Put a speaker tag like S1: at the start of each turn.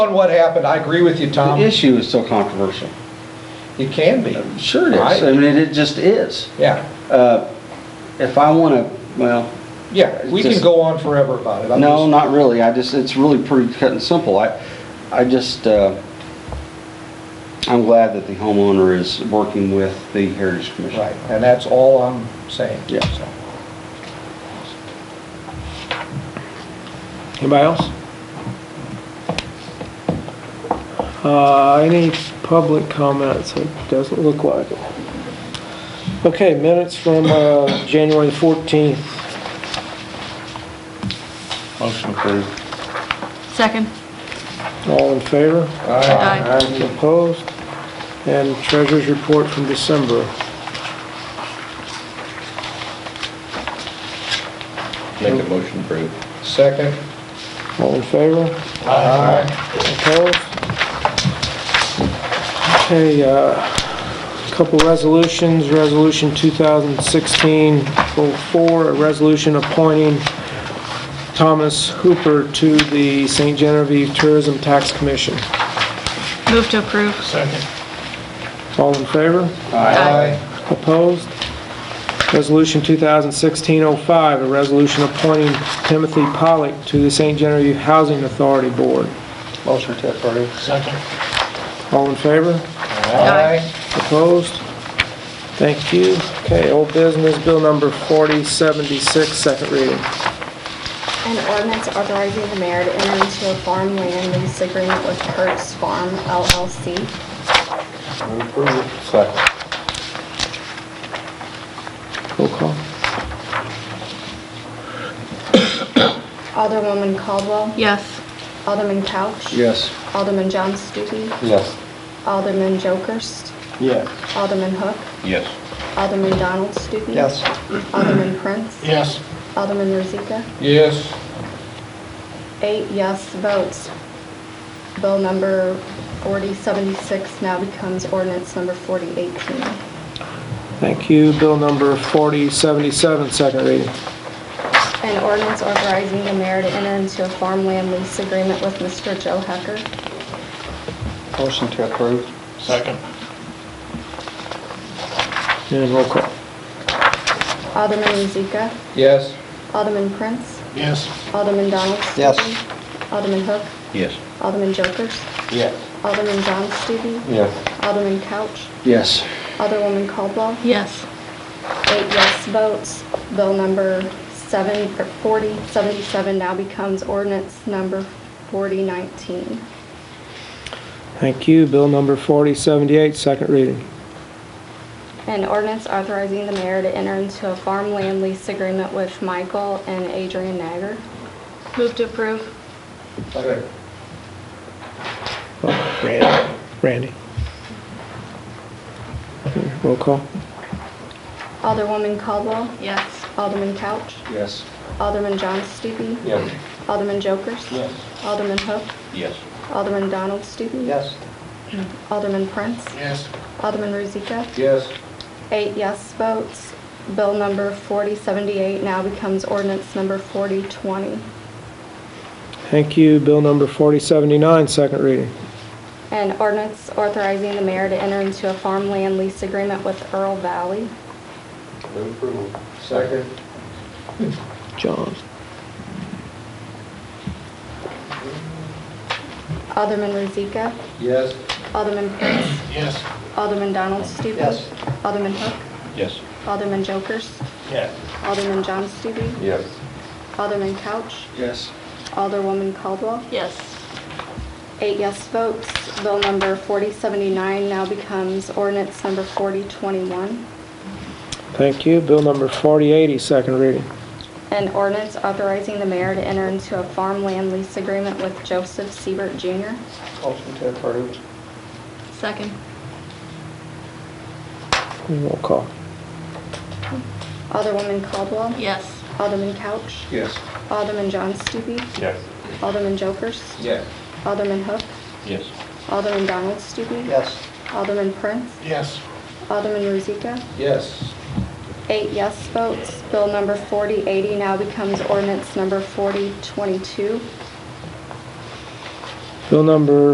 S1: On what happened, I agree with you,
S2: The
S1: Tom.
S2: issue is so controversial.
S1: It can be,
S2: Sure it is. I mean, it it just is.
S1: yeah,
S2: Uh, If I want to, well,
S1: yeah, we can
S2: Just-
S1: go on forever about it. I'm
S2: no,
S1: just-
S2: not really. I just, it's really pretty cut and simple. I, I just, uh, I'm glad that the homeowner is working with the Heritage Commission.
S1: Right, and that's all I'm saying.
S2: Yeah.
S1: so.
S3: Anybody else? Uh, any public comments? It doesn't look like it. Okay, minutes from, uh, January the fourteenth.
S4: Motion approved.
S5: Second.
S3: All in favor?
S1: All right.
S5: Aye.
S3: Any Opposed? And treasurer's report from December.
S4: Make a motion approved.
S1: Second.
S3: All in favor?
S1: Aye.
S3: Opposed? Okay, uh, couple resolutions, Resolution 2016-04, a resolution appointing Thomas Hooper to the St. Genevieve Tourism Tax Commission.
S5: Move to approve.
S1: Second.
S3: All in favor?
S1: Aye.
S3: Opposed? Resolution 2016-05, a resolution appointing Timothy Pollock to the St. Genevieve Housing Authority Board.
S2: Motion to approve.
S1: Second.
S3: All in favor?
S1: Aye.
S3: Opposed? Thank you. Okay, old business, bill number 4076, second reading.
S6: An ordinance authorizing the mayor to enter into a farmland lease agreement with Kurt's Farm LLC.
S4: Second.
S3: Roll call.
S6: Alderwoman Caldwell,
S5: Yes.
S6: Alderman Couch.
S2: Yes.
S6: Alderman John Stuckey,
S2: Yes.
S6: Alderman Jokers,
S2: Yes.
S6: Alderman Hook,
S4: Yes.
S6: Alderman Donald Stuckey.
S1: Yes.
S6: Alderman Prince,
S1: Yes.
S6: Alderman Rozika.
S1: Yes.
S6: Eight yes votes. Bill number 4076 now becomes ordinance number 4018.
S3: Thank you. Bill number 4077, second reading.
S6: An ordinance authorizing the mayor to enter into a farmland lease agreement with Mr. Joe Hecker.
S2: Motion to approve.
S4: Second.
S3: And roll call.
S6: Alderman Rozika.
S1: Yes.
S6: Alderman Prince.
S4: Yes.
S6: Alderman Donald Stupi.
S2: Yes.
S6: Alderman Hook.
S4: Yes.
S6: Alderman Jokers.
S2: Yes.
S6: Alderman John Stupi.
S2: Yes.
S6: Alderman Couch.
S2: Yes.
S6: Alderwoman Caldwell.
S5: Yes.
S6: Eight yes votes. Bill number 7 or 4077 now becomes ordinance number 4019.
S3: Thank you. Bill number 4078, second reading.
S6: An ordinance authorizing the mayor to enter into a farmland lease agreement with Michael and Adrian Nagar.
S5: Move to approve.
S1: Second.
S3: Randy. Randy. Roll call.
S6: Alderwoman Caldwell.
S5: Yes.
S6: Alderman Couch.
S2: Yes.
S6: Alderman John Stupi.
S2: Yes.
S6: Alderman Jokers.
S2: Yes.
S6: Alderman Hook.
S4: Yes.
S6: Alderman Donald Stupi.
S2: Yes.
S6: Alderman Prince.
S1: Yes.
S6: Alderman Rozika.
S1: Yes.
S6: Eight yes votes. Bill number 4078 now becomes ordinance number 4020.
S3: Thank you. Bill number 4079, second reading.
S6: An ordinance authorizing the mayor to enter into a farmland lease agreement with Earl Valley.
S1: Second.
S3: John.
S6: Alderman Rozika.
S1: Yes.
S6: Alderman Prince.
S4: Yes.
S6: Alderman Donald Stupi.
S1: Yes.
S6: Alderman Hook.
S4: Yes.
S6: Alderman Jokers.
S1: Yes.
S6: Alderman John Stupi.
S2: Yes.
S6: Alderman Couch.
S2: Yes.
S6: Alderwoman Caldwell.
S5: Yes.
S6: Eight yes votes. Bill number 4079 now becomes ordinance number 4021.
S3: Thank you. Bill number 4080, second reading.
S6: An ordinance authorizing the mayor to enter into a farmland lease agreement with Joseph Siebert Jr.
S2: Motion to approve.
S5: Second.
S3: And Roll call.
S6: Alderwoman Caldwell.
S5: Yes.
S6: Alderman Couch.
S2: Yes.
S6: Alderman John Stupi.
S4: Yes.
S6: Alderman Jokers.
S1: Yes.
S6: Alderman Hook.
S4: Yes.
S6: Alderman Donald Stupi.
S2: Yes.
S6: Alderman Prince.
S4: Yes.
S6: Alderman Rozika.
S1: Yes.
S6: Eight yes votes. Bill number 4080 now becomes ordinance number 4022.
S3: Bill number